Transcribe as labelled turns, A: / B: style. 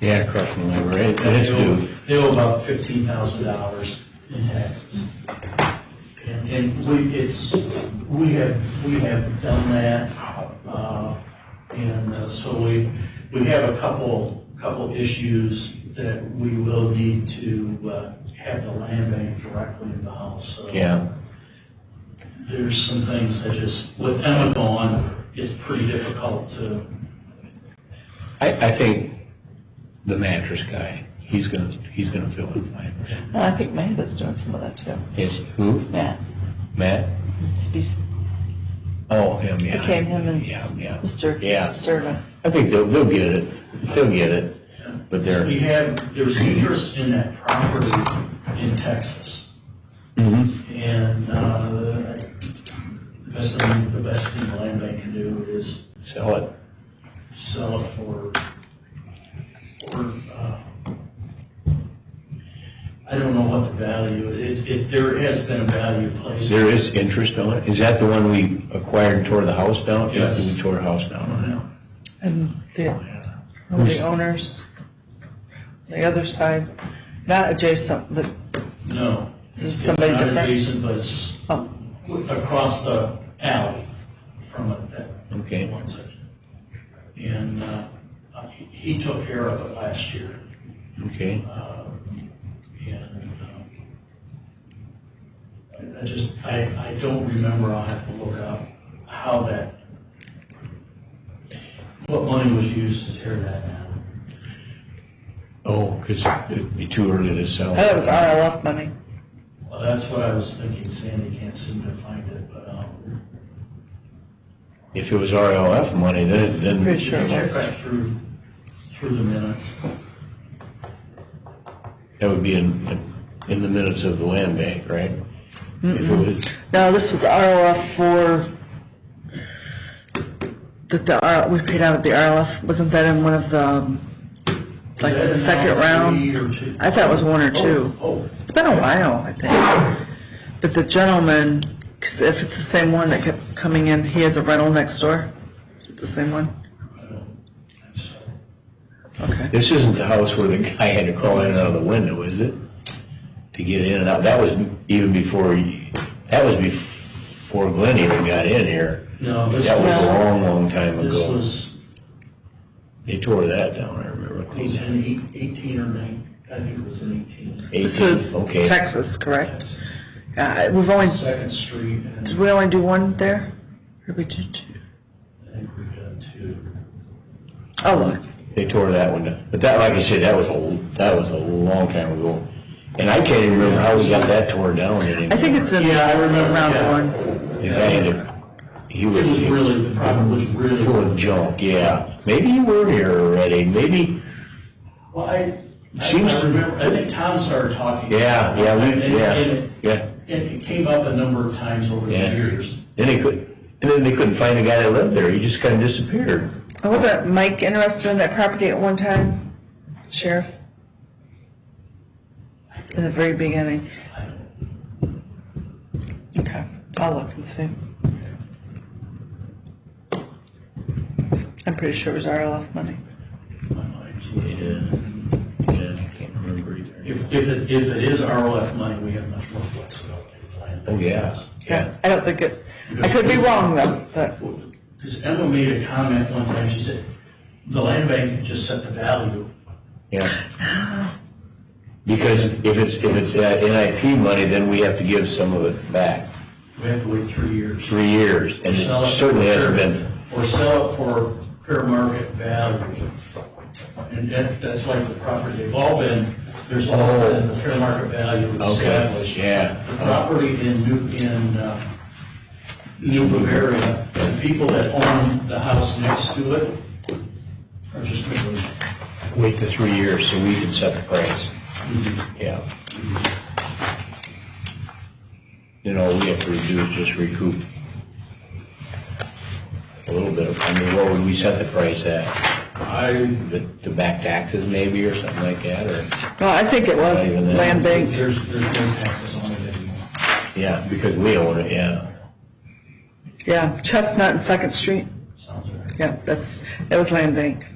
A: Yeah, across from the library, it it is due.
B: They owe about fifteen thousand dollars in taxes. And, and we, it's, we have, we have done that, uh, and uh, so we, we have a couple, couple issues that we will need to, uh, have the land bank directly involved, so.
A: Yeah,
B: There's some things that just, with Emma gone, it's pretty difficult to,
A: I, I think the mattress guy, he's gonna, he's gonna fill in fine.
C: And I think Matt is doing some of that too.
A: Is who?
C: Matt,
A: Matt?
C: he's
A: Oh, him, yeah.
C: Became him and-
A: Yeah, yeah.
C: Mr.
A: Yeah.
C: Sterling.
A: I think they'll, they'll get it, they'll get it, but they're.
B: We have, there's interest in that property in Texas,
A: Mhm.
B: and, uh, the best thing, the best thing the land bank can do is
A: Sell it.
B: sell it for, for, uh, I don't know what the value, it, it, there has been a value placed.
A: There is interest on it. Is that the one we acquired and tore the house down?
B: Yes.
A: We tore a house down on it.
B: Now,
C: And the, the owners, the other side, not adjacent, but,
B: No.
C: Is somebody
B: It's not
C: different?
B: adjacent, but it's
C: oh,
B: across the alley from it, that.
A: Okay.
B: one section. And, uh, he he took care of it last year,
A: Okay.
B: uh, and, um, I- I just, I, I don't remember, I'll have to look up how that, what money was used to tear that down.
A: Oh, 'cause it'd be too early to sell.
C: I thought it was RLF money.
B: Well, that's what I was thinking, Sandy can't seem to find it, but, um,
A: If it was RLF money, then, then.
C: Pretty sure.
B: check back through, through the minutes.
A: That would be in, in the minutes of the land bank, right? If it
C: Mm-mm.
A: was,
C: No, this was RLF for, that the, R- we paid out of the RLF, wasn't that in one of the, um, like,
B: Is that
C: the
B: now three
C: second round?
B: or two?
C: I thought it was one or two.
B: Oh,
C: It's been a while, I think. But the gentleman, 'cause if it's the same one that kept coming in, he has a rental next door? Is it the same one?
B: oh, I don't think so.
C: Okay.
A: this isn't the house where the guy had to crawl in and out of the window, is it? To get in and out, that was even before, he- that was before Glenn even got in here.
B: No, this
A: That was a
B: was,
A: long, long time
B: this
A: ago.
B: was,
A: They tore that down, I remember.
B: it was in eight- eighteen or nine, I think it was in eighteen.
C: This
A: Eighteen,
C: is
A: okay.
C: Texas, correct? Uh, we've only,
B: Second Street, and
C: did we only do one there? Or we did two?
B: I think we got two.
C: Oh, look.
A: They tore that one down. But that, like I said, that was a, that was a long time ago. And I can't even remember how we got that torn down anymore.
C: I think it's in
B: Yeah, I remember, yeah.
C: round one.
A: The guy had to- he
B: It
A: was.
B: was really, the problem was really.
A: Full of junk, yeah. Maybe you were here already, maybe,
B: Well, I, I I
A: Seems to-
B: remember, I think Tom started talking.
A: yeah, yeah,
B: And-
A: we,
B: and-
A: yeah,
B: and
A: yeah.
B: It, it came up a number of times over the
A: Yeah.
B: years.
A: Then they could, and then they couldn't find the guy that lived there, he just kinda disappeared.
C: Oh, Wasn't Mike interested in that property at one time, Sheriff? In the very beginning?
B: I don't-
C: Okay, I'll look and see. I'm pretty sure it was RLF money.
B: my mind's-
A: Yeah, yeah, I can't remember
B: If,
A: either.
B: if it, if it is RLF money, we have much more flexibility to plan.
A: Oh, yeah, yeah.
C: I don't think it, I could be wrong though, but,
B: Because Emma made a comment one time, she said, the land bank just set the value.
A: Yeah. Because if it's, if it's uh, NIP money, then we have to give some of it back,
B: We have to wait three years.
A: three years, and it
B: Sell it for
A: certainly hasn't
B: fair-
A: been,
B: Or sell it for fair market value. And that, that's like the property, they've all been, there's all been the fair market value
A: okay,
B: established. The
A: yeah.
B: property in New, in, uh, New Bavaria, the people that own the house next to it are just miserable.
A: Wait the three years so we can set the price. Yeah. You know, we have to do is just recoup a little bit of, I mean, what would we set the price at?
B: I
A: The, the back taxes maybe or something like that, or?
C: well, I think it was land bank.
B: There's, there's no taxes on it anymore.
A: Yeah, because we own it, yeah.
C: Yeah, Chestnut and Second Street.
B: Sounds right.
C: Yeah, that's, that was land bank.